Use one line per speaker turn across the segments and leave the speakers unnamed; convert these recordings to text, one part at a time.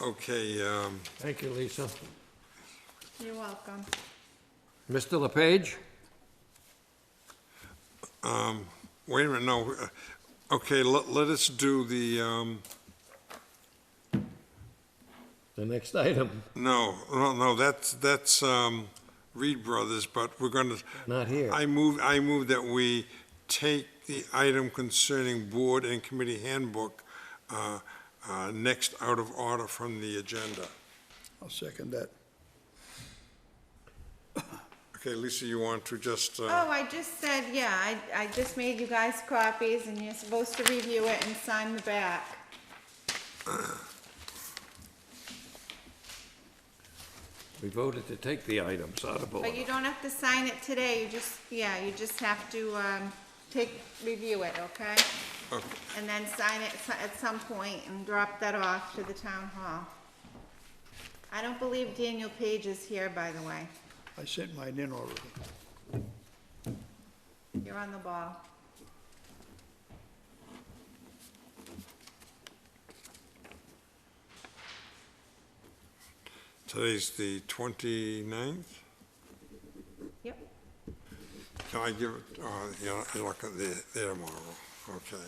Okay, um,
Thank you, Lisa.
You're welcome.
Mr. LePage?
wait a minute, no, uh, okay, let, let us do the, um,
The next item,
no, no, no, that's, that's, um, Reed Brothers, but we're gonna,
not here.
I move, I move that we take the item concerning board and committee handbook, uh, uh, next out of order from the agenda.
I'll second that.
Okay, Lisa, you want to just, uh,
Oh, I just said, yeah, I, I just made you guys copies and you're supposed to review it and sign the back.
We voted to take the items out of order.
But you don't have to sign it today, you just, yeah, you just have to, um, take, review it, okay?
okay,
And then sign it so- at some point and drop that off to the town hall. I don't believe Daniel Page is here, by the way.
I sent mine in already.
You're on the ball.
today's the 29th?
Yep.
Can I give it, uh, you know, I look at the, there tomorrow, okay.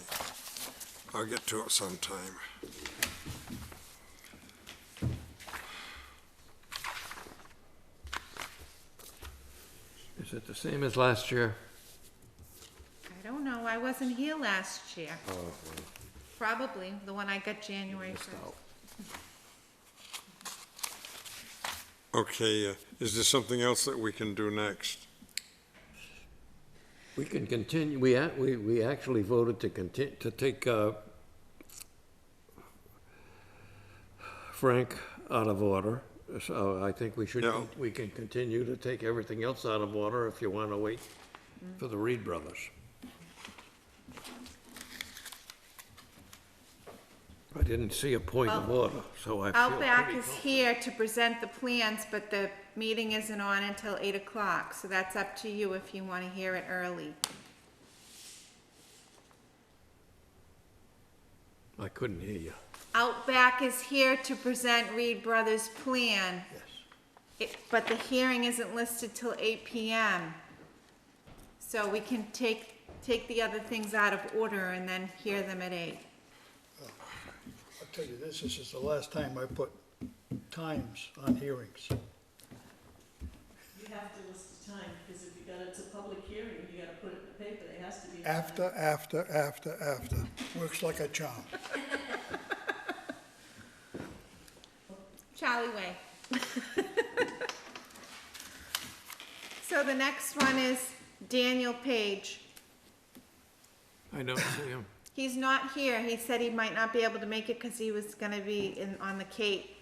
I'll get to it sometime.
Is it the same as last year?
I don't know, I wasn't here last year. Probably, the one I got January first.
Okay, uh, is there something else that we can do next?
We can continue, we, ac- we, we actually voted to contin, to take, uh, Frank out of order, so I think we should,
Yeah.
we can continue to take everything else out of order if you wanna wait for the Reed brothers. I didn't see a point of order, so I feel
Outback
pretty
is here to present the plans, but the meeting isn't on until eight o'clock, so that's up to you if you wanna hear it early.
I couldn't hear you.
Outback is here to present Reed Brothers' plan. It- But the hearing isn't listed till eight PM. So we can take, take the other things out of order and then hear them at eight.
I'll tell you this, this is the last time I put times on hearings.
You have to list the time, because if you got, it's a public hearing, you gotta put it in the paper, there has to be. a time.
After, after, after, after. Works like a charm.
Charlie Way. So the next one is Daniel Page.
I don't see him.
He's not here. He said he might not be able to make it because he was gonna be in, on the Cape.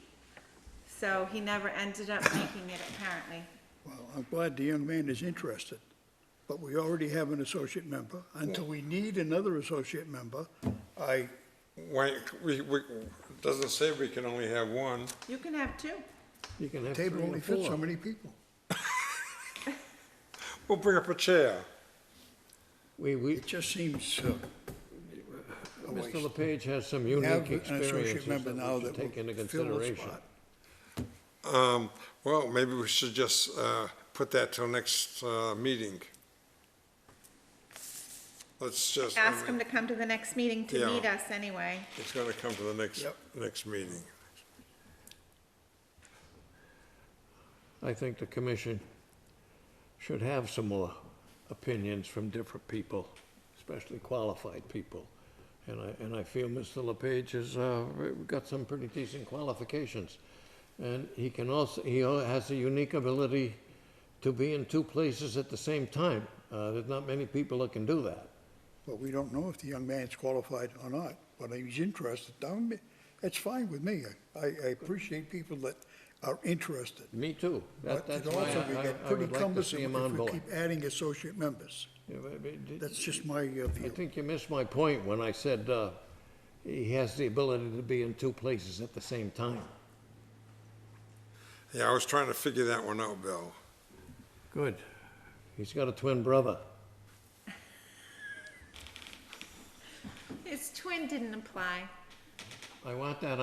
So he never ended up making it apparently.
Well, I'm glad the young man is interested, but we already have an associate member. Until we need another associate member, I,
Why, we, we, doesn't say we can only have one.
You can have two.
You can have
table
three
only
or
fits so
four.
many people.
We'll bring up a chair.
We, we,
It just seems, uh, a waste.
Mr. LePage has some
Have
unique
an associate
experiences
member
that
now
we should
that
take into
will fill the
consideration.
spot.
Um, well, maybe we should just, uh, put that till next, uh, meeting. Let's just. I
Ask him
mean,
to come to the next meeting to
Yeah.
meet us anyway.
It's gonna come to the next,
Yep.
next meeting.
I think the commission should have some more opinions from different people, especially qualified people. And I, and I feel Mr. LePage has, uh, got some pretty decent qualifications. And he can also, he al- has a unique ability to be in two places at the same time. Uh, there's not many people that can do that.
Well, we don't know if the young man's qualified or not, but he's interested. I'm- That's fine with me. I, I appreciate people that are interested.
Me too. That,
But
that's
it
why
also would
I-
get
I, I
pretty
would like to see
cumbersome
him on
if we
board.
keep adding associate members.
Yeah, but- but-
That's just my uh,
I
view.
think you missed my point when I said uh, he has the ability to be in two places at the same time.
Yeah, I was trying to figure that one out, Bill.
Good. He's got a twin brother.
His twin didn't apply.
I want that on